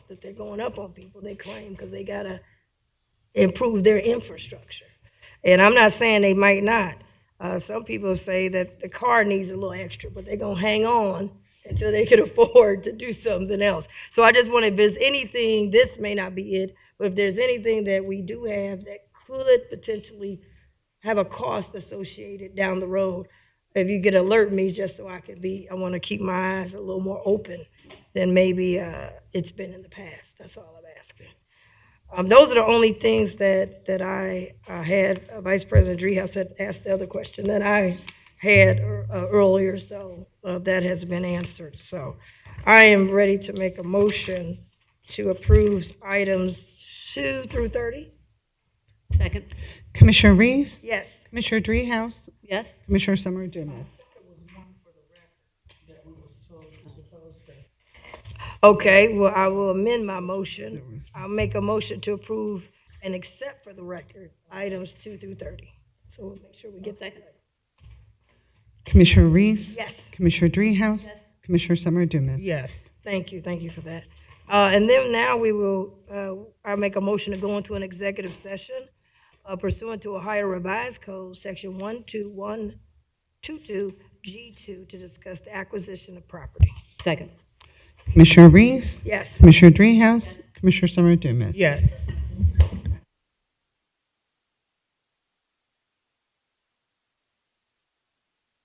that they're going up on people, they claim, because they gotta improve their infrastructure. And I'm not saying they might not. Uh, some people say that the car needs a little extra, but they're gonna hang on until they can afford to do something else. So I just want to, if there's anything, this may not be it, but if there's anything that we do have that could potentially have a cost associated down the road. If you could alert me, just so I could be, I want to keep my eyes a little more open than maybe uh, it's been in the past. That's all I'm asking. Um, those are the only things that, that I, I had. Uh, Vice President Dreehouse had asked the other question that I had ear- uh, earlier, so uh, that has been answered. So I am ready to make a motion to approve items two through 30. Second. Commissioner Reese, Yes. Commissioner Dreehouse, Yes? Commissioner Summer Dumas. Okay, well, I will amend my motion. I'll make a motion to approve and accept for the record items two through 30. So we'll make sure we get that. Second. Commissioner Reese. Yes. Commissioner Dreehouse. Commissioner Summer Dumas. Yes. Thank you, thank you for that. Uh, And then now we will, uh, I make a motion to go into an executive session uh, pursuant to Ohio Revised Code, Section 12122G2, to discuss the acquisition of property. Second. Commissioner Reese. Yes, Commissioner Dreehouse. Commissioner Summer Dumas. Yes.